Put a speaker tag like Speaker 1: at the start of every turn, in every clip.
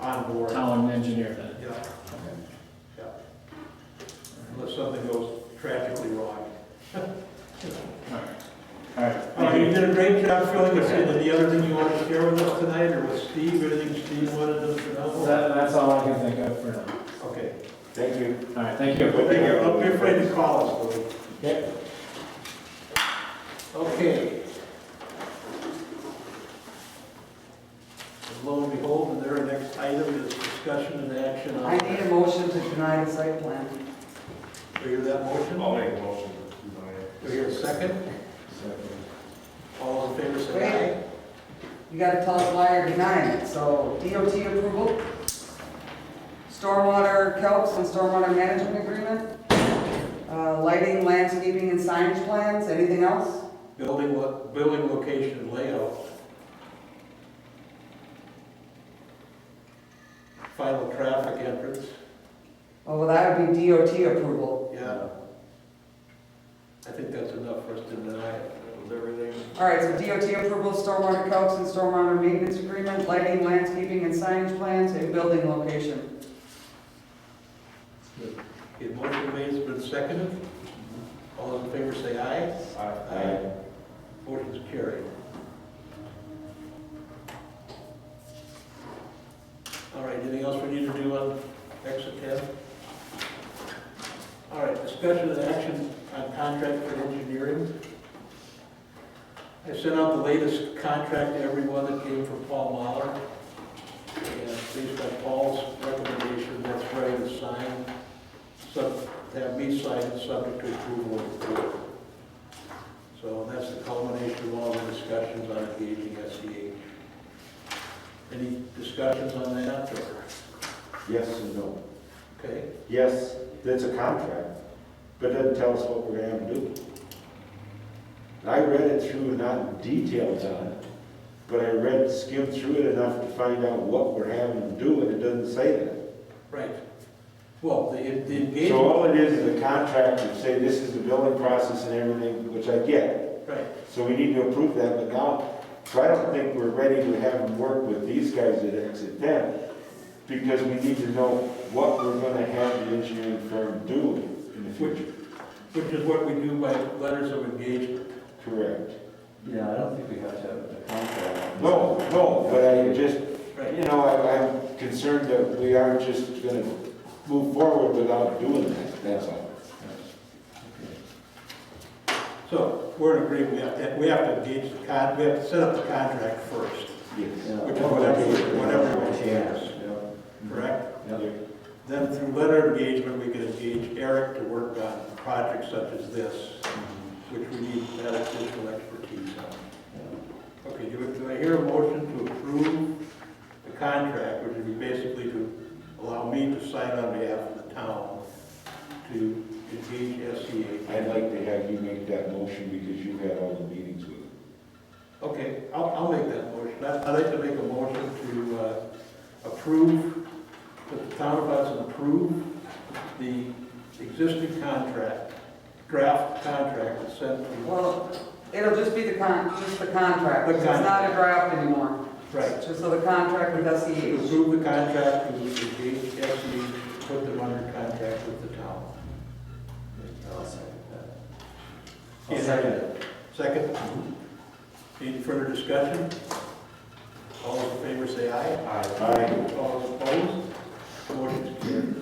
Speaker 1: on board.
Speaker 2: town engineer then.
Speaker 1: Yeah, yeah. Unless something goes tragically wrong.
Speaker 2: All right.
Speaker 1: All right, Oh, you did a great job filling us in. Any other thing you wanted to share with us tonight, or with Steve, anything Steve wanted us to know?
Speaker 2: That, that's all I can think of for now.
Speaker 1: Okay.
Speaker 3: Thank you.
Speaker 2: All right, thank you.
Speaker 1: Don't be- don't be afraid to call us, Louis.
Speaker 3: Okay.
Speaker 1: Okay. And lo and behold, and their next item is discussion and action on.
Speaker 4: I need a motion to deny the site plan.
Speaker 1: Do you hear that motion?
Speaker 3: I'll make a motion to
Speaker 1: Do you hear a second? All in favor, say
Speaker 4: Wait, you gotta tell us why you're denying it, so DOT approval, stormwater calcs and stormwater management agreement, uh, lighting, landscaping, and signage plans, anything else?
Speaker 1: aye. Building, lo- building location and layout. Final traffic entrance,
Speaker 4: Oh, Well, that would be DOT approval.
Speaker 1: yeah. I think that's enough for us to deny it. That was everything.
Speaker 4: All right, so DOT approval, stormwater calcs and stormwater maintenance agreement, lighting, landscaping, and signage plans, and building location.
Speaker 1: The motion made has been seconded. All in favor, say aye. Aye. Motion's carried. All right, anything else we need to do on exit ten? All right, discussion and action on contract for engineering. I sent out the latest contract to everyone that came from Paul Mahler. And based on Paul's recommendation, that's ready to sign, sub, have me sign it subject to approval of the board. So that's the culmination of all the discussions on engaging SEH. Any discussions on that, or,
Speaker 3: Yes and no.
Speaker 1: okay?
Speaker 3: Yes, that's a contract, but doesn't tell us what we're gonna have to do. And I read it through, not details on it, but I read, skimmed through it enough to find out what we're having to do, and it doesn't say that.
Speaker 1: Right. Well, the the
Speaker 3: So
Speaker 1: engagement,
Speaker 3: all it is is a contract to say this is the building process and everything, which I get.
Speaker 1: right,
Speaker 3: So we need to approve that, but now, so I don't think we're ready to have them work with these guys at Exit 10, because we need to know what we're gonna have the engineering firm do in the future.
Speaker 1: which is what we do by letters of engagement.
Speaker 3: Correct.
Speaker 5: Yeah, I don't think we have to have a contract.
Speaker 3: No, no, but I just,
Speaker 1: Right.
Speaker 3: you know, I- I'm concerned that we aren't just gonna move forward without doing that, that's all.
Speaker 1: So we're in agreement, we have to, we have to engage the con, we have to set up the contract first,
Speaker 3: Yes.
Speaker 5: Yeah.
Speaker 1: which is whatever, whatever it is,
Speaker 5: Yeah.
Speaker 1: correct?
Speaker 5: Yeah.
Speaker 1: Then through letter of engagement, we can engage Eric to work on projects such as this, which we need that additional expertise on. Okay, do I- do I hear a motion to approve the contract, which would be basically to allow me to sign on behalf of the town to engage SCA?
Speaker 3: I'd like to have you make that motion because you had all the meetings with it.
Speaker 1: Okay, I'll, I'll make that motion. I'd I'd like to make a motion to uh, approve, that the town of Hudson approve the existing contract, draft contract that's sent to,
Speaker 4: Well, it'll just be the con, just the contract,
Speaker 1: The
Speaker 4: it's not a draft anymore.
Speaker 1: right,
Speaker 4: Just so the contract with E
Speaker 1: to
Speaker 4: SEH.
Speaker 1: approve the contract, to engage SE, put them under contract with the town.
Speaker 5: I'll second it.
Speaker 1: Second, any further discussion? All in favor, say aye.
Speaker 3: Aye.
Speaker 1: All opposed? Motion's carried.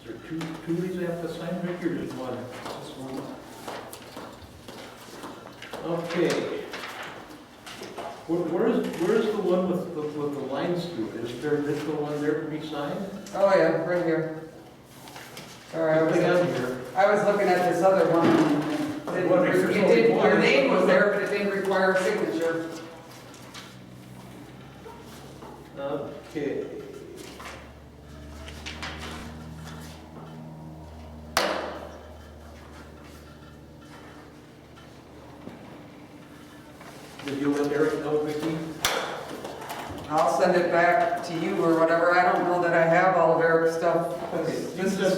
Speaker 1: Is there two, two of these I have to sign, Rick, or just one? Just one. Okay. Where, where is, where is the one with, the- with the lines through it? Is there, is the one there to be signed?
Speaker 4: Oh, yeah, right here. Sorry, I was,
Speaker 1: Nothing on here.
Speaker 4: I was looking at this other one. It didn't- It didn't, your name was there, but it didn't require a signature.
Speaker 1: Okay. Did you let Eric know, Vicki?
Speaker 4: I'll send it back to you or whatever, I don't know that I have all of Eric's stuff, 'cause
Speaker 1: Okay, you
Speaker 4: this
Speaker 1: send-
Speaker 4: is